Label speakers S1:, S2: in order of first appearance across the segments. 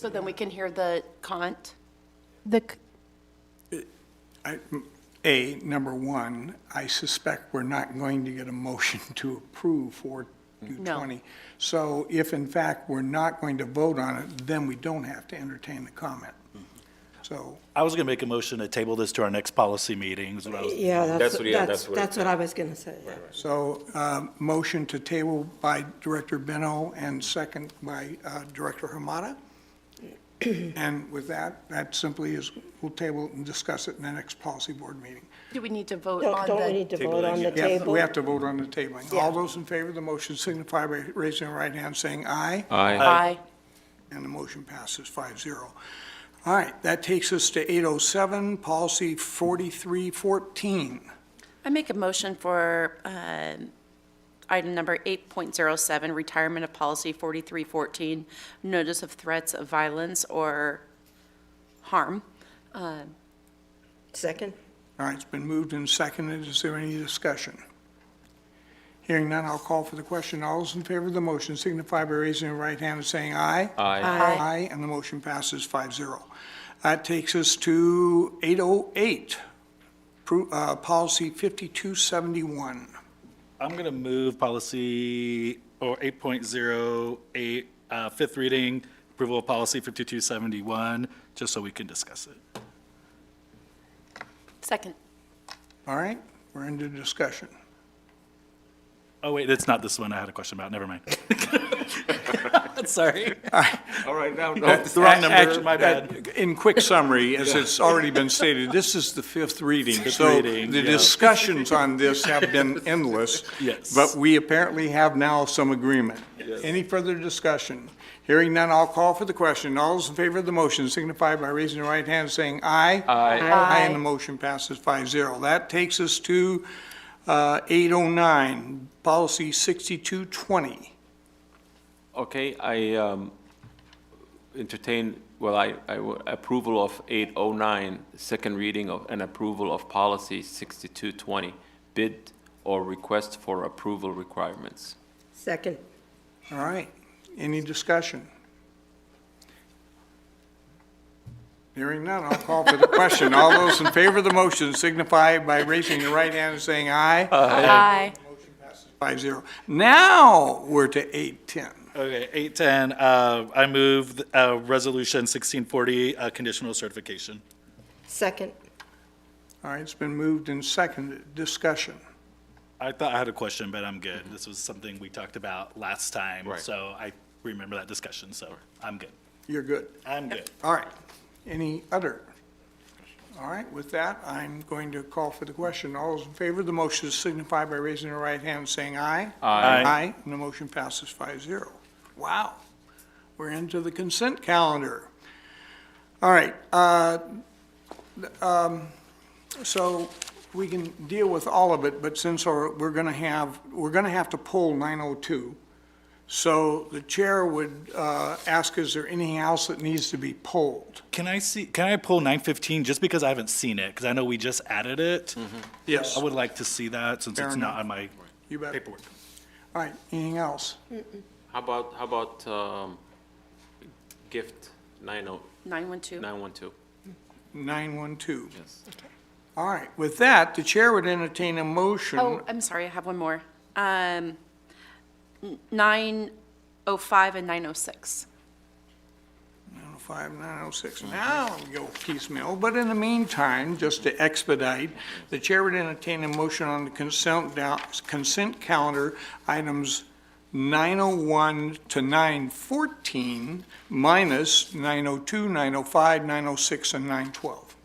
S1: So then we can hear the cont?
S2: The, c-
S3: I- A, number one, I suspect we're not going to get a motion to approve for
S1: No.
S3: 220. So if in fact we're not going to vote on it, then we don't have to entertain the comment. So
S4: I was going to make a motion to table this to our next policy meeting, is what I was,
S5: Yeah, that's,
S6: That's what- yeah,
S5: that's,
S6: that's what-
S5: that's what I was gonna say.
S3: So, uh, motion to table by Director Beno and second by uh, Director Hamada. And with that, that simply is, we'll table it and discuss it in the next policy board meeting.
S1: Do we need to vote
S5: Don't,
S1: on
S5: don't we
S1: the,
S5: need to vote on the
S3: Yeah,
S5: table?
S3: we have to vote on the tabling. All those in favor of the motion signify by raising their right hand, saying aye.
S6: Aye.
S1: aye?
S3: And the motion passes 5-0. All right, that takes us to 807, Policy 4314.
S7: I make a motion for um, item number 8.07, retirement of policy 4314, notice of threats of violence or harm.
S5: Second?
S3: All right, it's been moved and seconded. Is there any discussion? Hearing none, I'll call for the question. All those in favor of the motion signify by raising your right hand and saying aye.
S6: Aye.
S3: Aye, and the motion passes 5-0. That takes us to 808, Pro- uh, Policy 5271.
S4: I'm going to move policy, or 8.08, uh, fifth reading, approval of policy 5271, just so we can discuss it.
S1: Second.
S3: All right, we're into discussion.
S4: Oh, wait, it's not this one I had a question about, never mind. Sorry. Oh,
S6: All right, now, no.
S4: The wrong number,
S3: Act-
S4: my bad.
S3: uh, In quick summary, as it's already been stated, this is the fifth reading.
S4: Fifth
S3: So
S4: reading,
S3: the
S4: yeah.
S3: discussions on this have been endless.
S4: Yes.
S3: But we apparently have now some agreement. Any further discussion? Hearing none, I'll call for the question. All those in favor of the motion signify by raising your right hand, saying aye. Aye. Aye, and the motion passes 5-0. That takes us to uh, 809, Policy 6220.
S6: Uh, Okay, I um, entertain, well, I, I w- approval of 809, second reading of, and approval of policy 6220, bid or request for approval requirements.
S5: Second.
S3: All right, any discussion? Hearing none, I'll call for the question. All those in favor of the motion signify by raising your right hand and saying aye.
S1: Aye.
S3: Five zero. Now, we're to eight ten.
S4: Okay, 810, uh, I move uh, resolution 1640, uh, conditional certification.
S5: Second.
S3: All right, it's been moved and seconded. Discussion.
S4: I thought I had a question, but I'm good. This was something we talked about last time,
S6: Right.
S4: so I remember that discussion, so I'm good.
S3: You're good.
S4: I'm good.
S3: All right. Any other? All right, with that, I'm going to call for the question. All those in favor of the motion signify by raising their right hand and saying aye.
S4: Aye.
S3: Aye, and the motion passes 5-0. Wow, we're into the consent calendar. All right, uh, um, so we can deal with all of it, but since our- we're going to have, we're going to have to pull 902, so the chair would uh, ask, is there anything else that needs to be polled?
S4: Can I see, can I pull nine fifteen, just because I haven't seen it, because I know we just added it?
S3: Yes.
S4: I would like to see that, since
S3: Fair
S4: it's
S3: enough.
S4: not on my
S3: You bet.
S4: paperwork.
S3: All right, anything else?
S6: How about, how about um, gift oh, 90
S7: 912.
S6: 912?
S3: 912.
S6: Yes.
S3: All right, with that, the chair would entertain a
S7: Oh,
S3: motion.
S7: I'm sorry, I have one more. Um,
S1: oh
S7: n- 905 and 906.
S3: 905, 906, now we go piecemeal. But in the meantime, just to expedite, the chair would entertain a motion on the consent, dou- consent calendar, items 901 to 914, minus 902, 905, 906, and 912.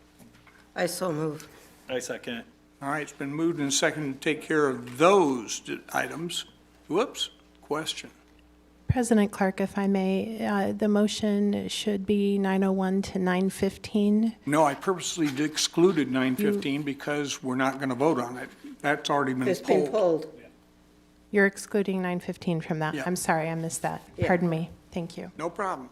S5: I so move.
S4: I second.
S3: All right, it's been moved and seconded to take care of those d- items. Whoops, question.
S2: President Clark, if I may, uh, the motion should be 901 to 915.
S3: No, I purposely excluded 915 because we're not going to vote on it. That's already been
S5: Mm. It's been
S3: pulled.
S5: pulled.
S2: You're excluding 915 from that.
S3: Yeah.
S2: I'm sorry, I missed that.
S5: Yeah.
S2: Pardon me. Thank you.
S3: No problem.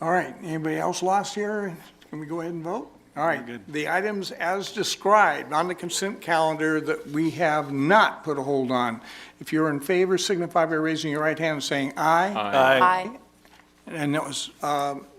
S3: All right, anybody else lost here? Can we go ahead and vote? All right, the items as described on the consent calendar that we have not put a hold on. If you're in favor, signify by raising your right hand and saying aye.
S1: Aye.
S3: And that was, um,